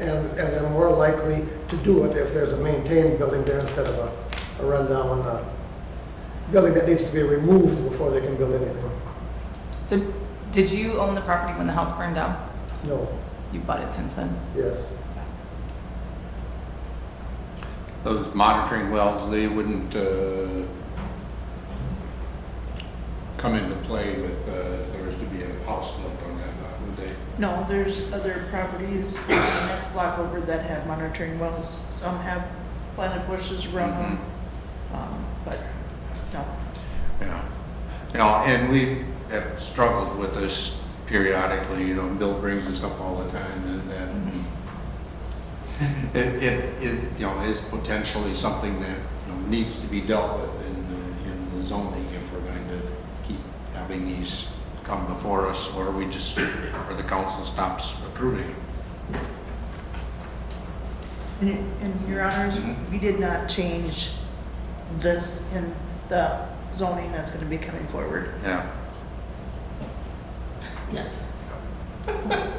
and, and they're more likely to do it if there's a maintained building there instead of a, a rundown, uh, building that needs to be removed before they can build anything. So did you own the property when the house burned down? No, You bought it since then? yes. Those monitoring wells, they wouldn't uh, come into play with, uh, if there was to be a house built on that lot, would they? No, there's other properties in the next block over that have monitoring wells. Some have planted bushes around them, um, but no. Yeah, you know, and we have struggled with this periodically, you know, Bill brings this up all the time, and that it, it, it, you know, is potentially something that, you know, needs to be dealt with in, the- in the zoning if we're going to keep having these come before us, or we just, or the council stops approving. it. And and your honors, we did not change this in the zoning that's gonna be coming forward. Yeah, Yet.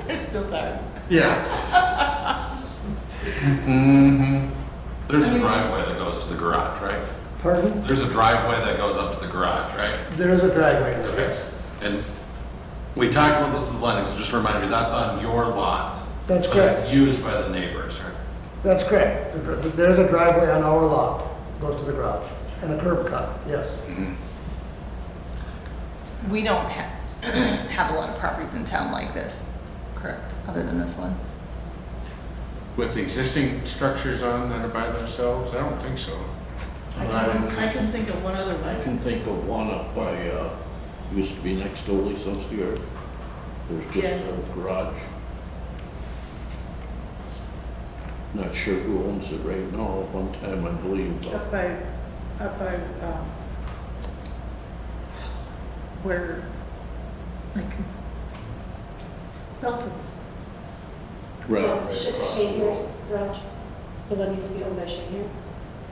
There's still time. yes. Mm-hmm, There's a driveway that goes to the garage, right? Pardon? There's a driveway that goes up to the garage, right? There is a driveway in there, Okay. yes. And we talked about this with Lennox, just remind me, that's on your lot. That's but it's correct. Used by the neighbors, right? That's correct. The dr- There's a driveway on our lot, goes to the garage, and a curb cut, yes. Mm-hmm. We don't have, have a lot of properties in town like this, correct? Other than this one? with the existing structures on that are by themselves, I don't think so. I can, I can think of one other I one. can think of one up by, uh, used to be next to Old Sun's here. There's just Yeah. a garage. Not sure who owns it right now. At One time, I believe, uh, Up by, up by, um, where, like, Belton's. Right. Shahir's garage, the one that used to be owned by Shahir.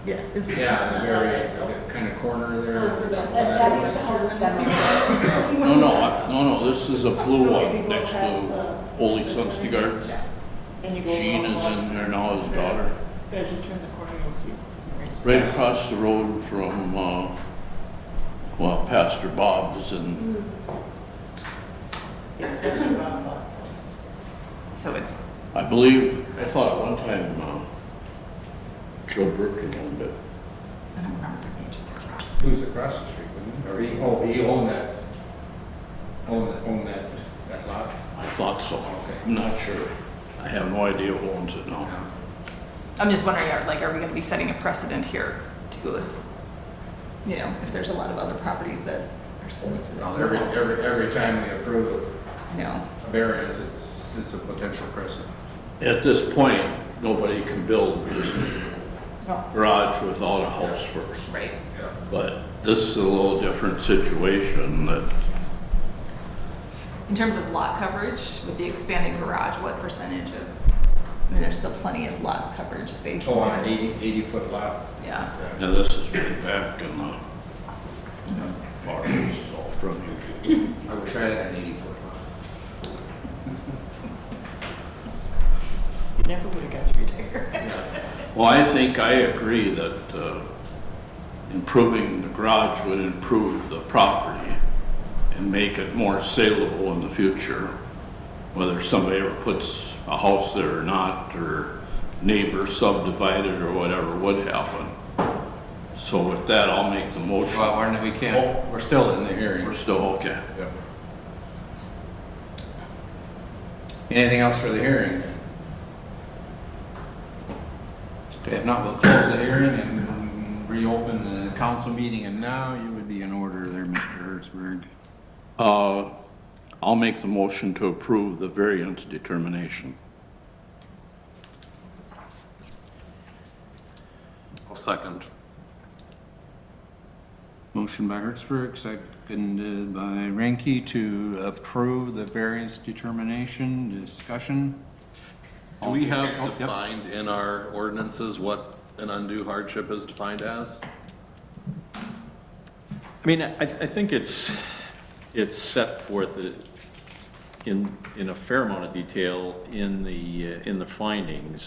Yeah. it's- Yeah, the very kind of corner there. That's, that used to house the seven. No, no, I- no, no, this is a blue So if you one go next past to the- Old Sun's Gardens. And you go Jean along is the- in there now, his daughter. As you turn the corner, you'll see it's orange. Right across the road from, uh, well, Pastor Bob's and, Yeah, that's your round lot. So it's, I believe, I thought at one time, uh, Joe Burkin owned it. I don't remember there being just a garage. Who's across the street, wouldn't he? Or he, oh, he owned that, owned, owned that, that lot? I thought so. Okay. I'm not sure. I have no idea who owns it now. Yeah. I'm just wondering, are, like, are we gonna be setting a precedent here to, you know, if there's a lot of other properties that are similar to this? Well, Every, every, every time we approve I know. a variance, it's, it's a potential precedent. At this point, nobody can build just No. garage without a house first. Right. Yeah. But this is a little different situation that In terms of lot coverage, with the expanded garage, what percentage of, I mean, there's still plenty of lot coverage space. Oh, on an eighty, eighty-foot lot? Yeah, And this is way back in the far east, all from usual. I wish I had an eighty-foot lot. You never would have got to retire. Well, I think I agree that uh, improving the garage would improve the property and make it more saleable in the future, whether somebody ever puts a house there or not, or neighbors subdivided or whatever would happen. So with that, I'll make the motion. Well, we're, we can't, Oh, we're still in the hearing. We're still, okay. Yep. Anything else for the hearing? Okay, if not, we'll close the hearing and reopen the council meeting, and now you would be in order there, Mr. Hertzberg. Uh, I'll make the motion to approve the variance determination. I'll second. Motion by Hertzberg, seconded by Ranky to approve the variance determination, discussion. Do we have Oh, yep. defined in our ordinances what an undue hardship is defined as? I mean, I, I think it's, it's set forth i- in, in a fair amount of detail in the, uh, in the findings.